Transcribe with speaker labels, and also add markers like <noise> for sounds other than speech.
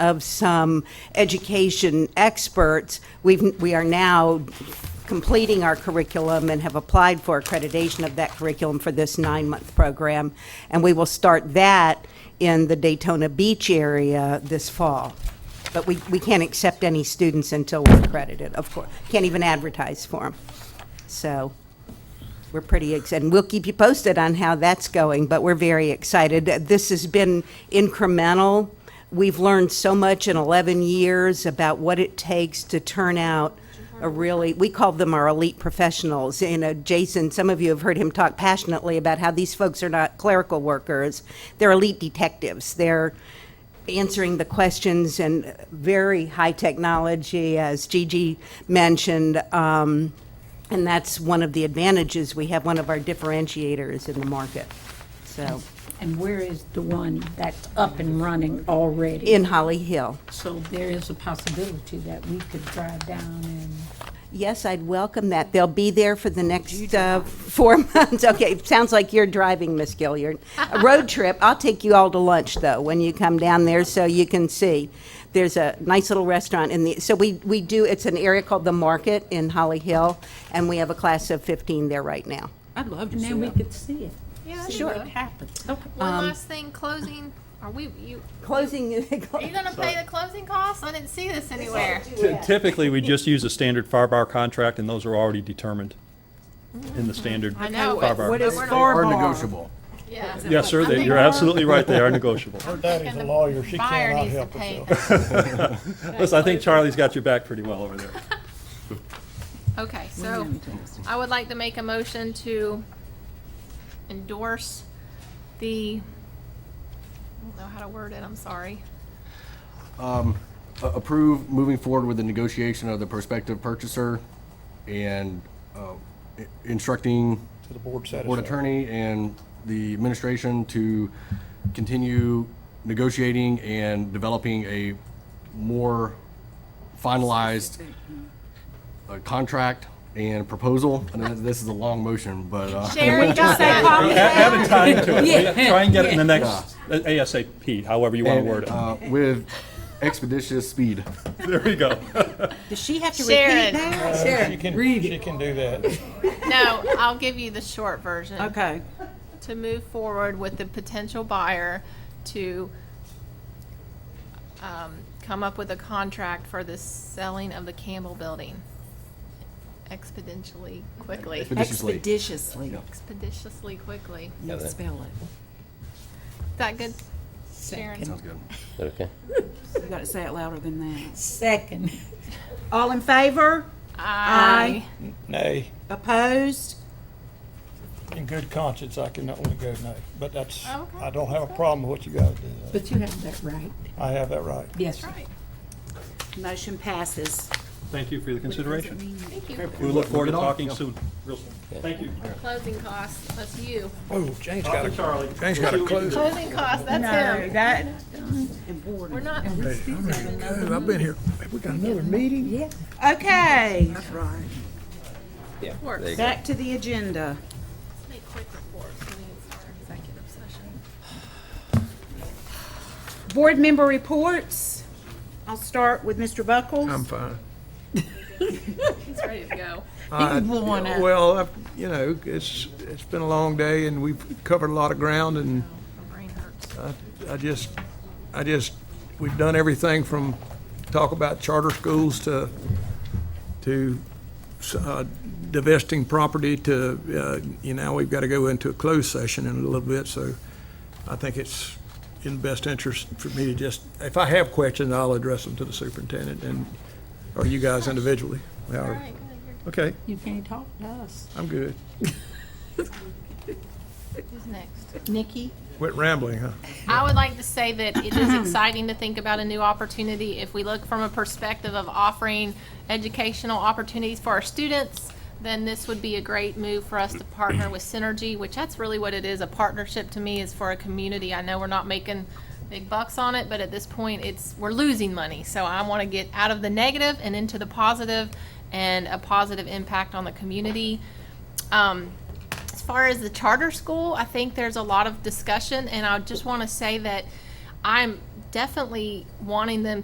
Speaker 1: of some education experts. We've, we are now completing our curriculum and have applied for accreditation of that curriculum for this nine-month program. And we will start that in the Daytona Beach area this fall. But we, we can't accept any students until we're accredited, of course. Can't even advertise for them. So we're pretty excited. And we'll keep you posted on how that's going, but we're very excited. This has been incremental. We've learned so much in 11 years about what it takes to turn out a really, we call them our elite professionals. You know, Jason, some of you have heard him talk passionately about how these folks are not clerical workers, they're elite detectives. They're answering the questions and very high technology, as Gigi mentioned. Um, and that's one of the advantages we have, one of our differentiators in the market. So,
Speaker 2: And where is the one that's up and running already?
Speaker 1: in Holly Hill.
Speaker 2: So there is a possibility that we could drive down and,
Speaker 1: Yes, I'd welcome that. They'll be there for the next uh, four <laughs> months. Okay, it sounds like you're driving, Miss Gilliard. A road trip. I'll take you all to lunch though when you come down there, so you can see. There's a nice little restaurant in the. So we we do. It's an area called the Market in Holly Hill, and we have a class of 15 there right now.
Speaker 3: I'd love to
Speaker 2: and
Speaker 3: see
Speaker 2: then we
Speaker 3: that.
Speaker 2: could see it.
Speaker 4: Yeah, that'd be
Speaker 2: See what
Speaker 4: good.
Speaker 2: happens.
Speaker 4: One last thing, closing. Are we you?
Speaker 1: Closing.
Speaker 4: Are you gonna pay the closing costs? I didn't see this anywhere.
Speaker 5: Ty- Typically, we just use a standard fire-bar contract, and those are already determined in the standard
Speaker 4: I know.
Speaker 5: fire-bar.
Speaker 4: but
Speaker 6: is
Speaker 4: we're not-
Speaker 6: far-
Speaker 7: Or
Speaker 6: Bar.
Speaker 7: negotiable.
Speaker 4: Yeah.
Speaker 5: Yes, sir, they- you're absolutely right,
Speaker 4: <laughs>
Speaker 5: they are negotiable.
Speaker 8: Her daddy's a lawyer, she
Speaker 4: Buyer
Speaker 8: cannot
Speaker 4: needs to
Speaker 8: help
Speaker 4: pay.
Speaker 8: herself.
Speaker 5: Listen, I think Charlie's got your back pretty well over there.
Speaker 4: <laughs> Okay, so I would like to make a motion to endorse the, I don't know how to word it, I'm sorry.
Speaker 7: A- Approve moving forward with the negotiation of the prospective purchaser and uh, i- instructing
Speaker 8: To the board
Speaker 7: board
Speaker 8: satisfaction.
Speaker 7: attorney and the administration to continue negotiating and developing a more finalized uh, contract and proposal. I know this is a long motion, but. uh,
Speaker 4: Sherry got that.
Speaker 5: A- Add a time to it, We- try and get it in the next uh, ASAP, however you want to
Speaker 7: and,
Speaker 5: word it.
Speaker 7: uh, With expeditious speed.
Speaker 5: <laughs> There we go.
Speaker 3: Does she have to repeat
Speaker 4: Sharon.
Speaker 3: that?
Speaker 8: She can, she can do that.
Speaker 4: No, I'll give you the short version.
Speaker 3: Okay.
Speaker 4: to move forward with the potential buyer to um, come up with a contract for the selling of the Campbell Building expeditiously, quickly,
Speaker 7: Expeditiously.
Speaker 3: Expeditiously.
Speaker 4: expeditiously, quickly.
Speaker 3: You spell it.
Speaker 4: Is that good? Sharon?
Speaker 7: Sounds good.
Speaker 9: Okay.
Speaker 3: You gotta say it louder than that.
Speaker 2: Second.
Speaker 3: All in favor? Aye.
Speaker 8: Nay,
Speaker 3: Opposed?
Speaker 8: in good conscience, I can only go nay, but that's,
Speaker 4: Oh, Okay,
Speaker 8: I don't have a problem with what you gotta do.
Speaker 2: But you have that right.
Speaker 8: I have that right.
Speaker 2: Yes, sir.
Speaker 4: Right,
Speaker 3: Motion passes.
Speaker 5: Thank you for your consideration.
Speaker 4: thank you.
Speaker 5: We look forward to
Speaker 7: Moving on.
Speaker 5: talking soon, real soon. Thank you.
Speaker 4: Closing costs, that's you.
Speaker 8: Oh, James
Speaker 5: Talk
Speaker 8: got
Speaker 5: to
Speaker 8: a,
Speaker 5: Charlie.
Speaker 8: James got a close.
Speaker 4: Closing costs, that's him.
Speaker 3: That.
Speaker 4: We're not,
Speaker 8: I've been here, we got another meeting?
Speaker 3: Okay,
Speaker 4: works.
Speaker 3: back to the agenda.
Speaker 4: Make quick reports, we need our executive session.
Speaker 3: Board member reports. I'll start with Mr. Buckles.
Speaker 6: I'm fine.
Speaker 4: He's ready to
Speaker 6: <laughs>
Speaker 4: go.
Speaker 6: I- Well, I've- you know, it's, it's been a long day and we've covered a lot of ground and
Speaker 4: Oh, My brain hurts.
Speaker 6: I just, I just, we've done everything from talk about charter schools to, to uh, divesting property to, uh, you know, we've got to go into a closed session in a little bit, so I think it's in best interest for me to just, if I have questions, I'll address them to the superintendent and, or you guys individually.
Speaker 4: All
Speaker 6: however.
Speaker 4: right, good, you're-
Speaker 6: Okay,
Speaker 2: You can't talk to us.
Speaker 6: I'm good.
Speaker 4: who's next?
Speaker 3: Nikki?
Speaker 6: Quit rambling, huh?
Speaker 4: I would like to say that it is exciting to think about a new opportunity if we look from a perspective of offering educational opportunities for our students. Then this would be a great move for us to partner with Synergy, which that's really what it is. A partnership to me is for a community. I know we're not making big bucks on it, but at this point, it's we're losing money. So I want to get out of the negative and into the positive, and a positive impact on the community. Um, as far as the charter school, I think there's a lot of discussion, and I just want to say that I'm definitely wanting them